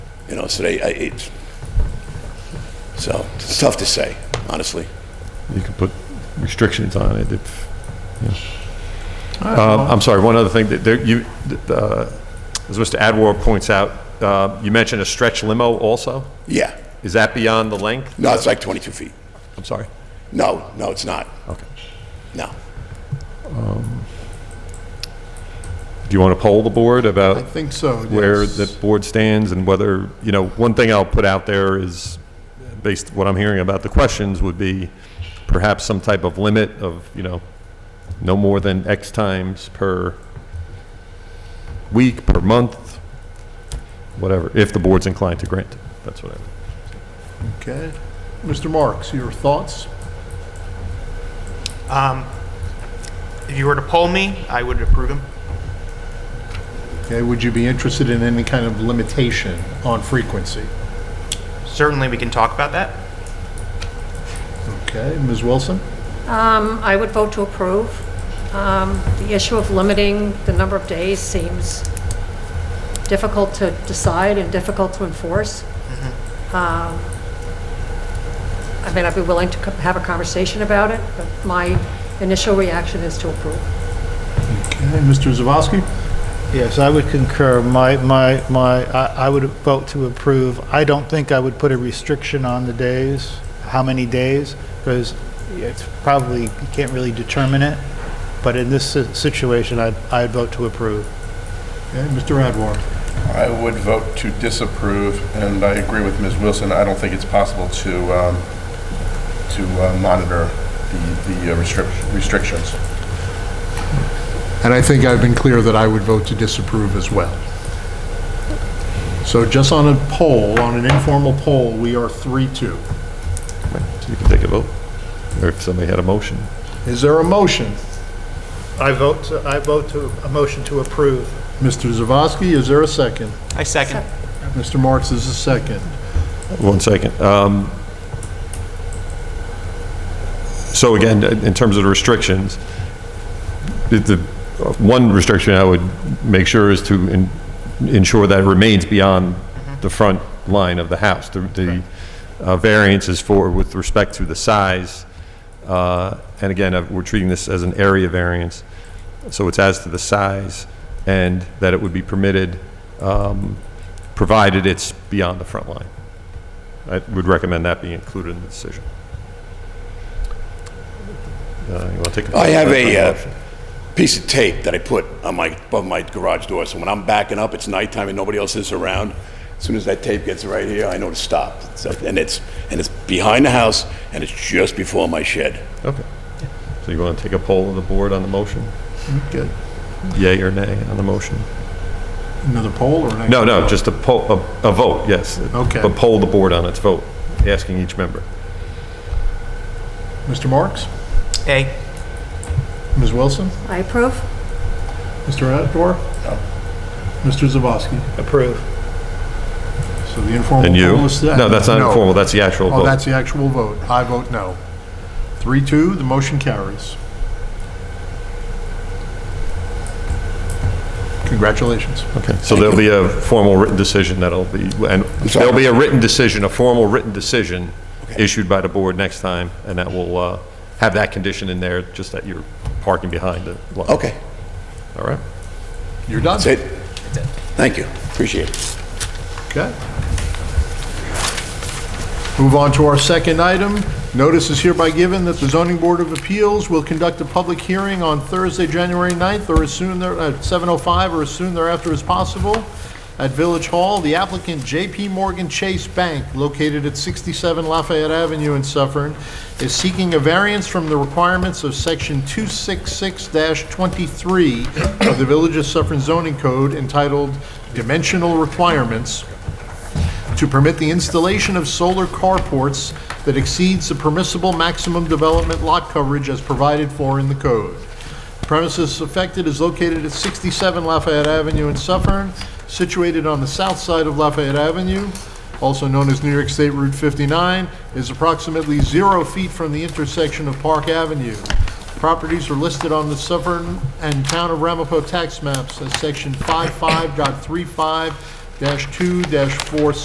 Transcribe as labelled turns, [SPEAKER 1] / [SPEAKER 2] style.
[SPEAKER 1] You know, so they, I, it's, so, it's tough to say, honestly.
[SPEAKER 2] You could put restrictions on it if, yeah. Uh, I'm sorry, one other thing, that there, you, th- uh, as Mr. Adwar points out, uh, you mentioned a stretch limo also?
[SPEAKER 1] Yeah.
[SPEAKER 2] Is that beyond the length?
[SPEAKER 1] No, it's like 22 feet.
[SPEAKER 2] I'm sorry?
[SPEAKER 1] No, no, it's not.
[SPEAKER 2] Okay.
[SPEAKER 1] No.
[SPEAKER 2] Do you want to poll the board about?
[SPEAKER 3] I think so,
[SPEAKER 2] where
[SPEAKER 3] yes.
[SPEAKER 2] the board stands and whether, you know, one thing I'll put out there is, based what I'm hearing about the questions, would be perhaps some type of limit of, you know, no more than X times per week, per month, whatever, if the board's inclined to grant it. That's what I would.
[SPEAKER 3] Okay. Mr. Marks, your thoughts?
[SPEAKER 4] Um, If you were to poll me, I would approve him.
[SPEAKER 3] Okay, would you be interested in any kind of limitation on frequency?
[SPEAKER 4] Certainly, we can talk about that.
[SPEAKER 3] Okay, Ms. Wilson?
[SPEAKER 5] Um, I would vote to approve. Um, The issue of limiting the number of days seems difficult to decide and difficult to enforce. Um, I mean, I'd be willing to co- have a conversation about it, but my initial reaction is to approve.
[SPEAKER 3] Okay, Mr. Zavosky?
[SPEAKER 6] Yes, I would concur. My, my, my, I I would vote to approve. I don't think I would put a restriction on the days, how many days, because it's probably, you can't really determine it. But in this si- situation, I'd, I'd vote to approve.
[SPEAKER 3] Okay, Mr. Adwar?
[SPEAKER 7] I would vote to disapprove, and I agree with Ms. Wilson, I don't think it's possible to, um, to uh, monitor the, the uh, restrict- restrictions.
[SPEAKER 3] And I think I've been clear that I would vote to disapprove as well. So just on a poll, on an informal poll, we are 3-2.
[SPEAKER 2] So you can take a vote, or if somebody had a motion.
[SPEAKER 3] Is there a motion?
[SPEAKER 6] I vote, to- I vote to, a motion to approve.
[SPEAKER 3] Mr. Zavosky, is there a second?
[SPEAKER 4] I second.
[SPEAKER 3] Mr. Marks is a second.
[SPEAKER 2] One second. Um, So again, in terms of the restrictions, the- the, one restriction I would make sure is to en- ensure that it remains beyond the front line of the house. The- The uh, variance is for, with respect to the size, uh, and again, uh, we're treating this as an area variance, so it's as to the size, and that it would be permitted, um, provided it's beyond the front line. I would recommend that be included in the decision. Uh, You want to take a...
[SPEAKER 1] I have a, uh,
[SPEAKER 2] Motion.
[SPEAKER 1] piece of tape that I put on my, above my garage door, so when I'm backing up, it's nighttime and nobody else is around. As soon as that tape gets right here, I know to stop. So- And it's, and it's behind the house, and it's just before my shed.
[SPEAKER 2] Okay. So you want to take a poll of the board on the motion?
[SPEAKER 3] Okay.
[SPEAKER 2] Yay or nay on the motion?
[SPEAKER 3] Another poll or an?
[SPEAKER 2] No, no, just a poll, a, a vote, yes.
[SPEAKER 3] Okay.
[SPEAKER 2] But poll the board on its vote, asking each member.
[SPEAKER 3] Mr. Marks?
[SPEAKER 4] A.
[SPEAKER 3] Ms. Wilson?
[SPEAKER 5] I approve?
[SPEAKER 3] Mr. Adwar?
[SPEAKER 7] No.
[SPEAKER 3] Mr. Zabosky?
[SPEAKER 6] Approve.
[SPEAKER 3] So the informal
[SPEAKER 2] And you?
[SPEAKER 3] poll Oh, is that?
[SPEAKER 2] No, that's not informal, that's the actual
[SPEAKER 3] Oh, that's
[SPEAKER 2] vote.
[SPEAKER 3] the actual vote. I vote no. 3-2, the motion carries. Congratulations.
[SPEAKER 2] Okay, so there'll be a formal written decision that'll be, and
[SPEAKER 1] sorry.
[SPEAKER 2] there'll be a written decision, a formal written decision
[SPEAKER 1] Okay.
[SPEAKER 2] issued by the board next time, and that will, uh, have that condition in there, just that you're parking behind the lot.
[SPEAKER 1] Okay,
[SPEAKER 2] All right?
[SPEAKER 3] You're done.
[SPEAKER 1] that's it. Thank you, appreciate it.
[SPEAKER 3] Okay. Move on to our second item. Notice is hereby given that the zoning board of appeals will conduct a public hearing on Thursday, January 9th, or as soon, there- at 7:05, or as soon thereafter as possible, at Village Hall. The applicant, JP Morgan Chase Bank, located at 67 Lafayette Avenue in Suffern, is seeking a variance from the requirements of Section 266-23 of the Village of Suffern zoning code entitled Dimensional Requirements, to permit the installation of solar carports that exceeds the permissible maximum development lot coverage as provided for in the code. The Premises affected is located at 67 Lafayette Avenue in Suffern, situated on the south side of Lafayette Avenue, also known as New York State Route 59, is approximately zero feet from the intersection of Park Avenue. Properties are listed on the Suffern and Town of Ramapo tax maps as Section 55.35-2-4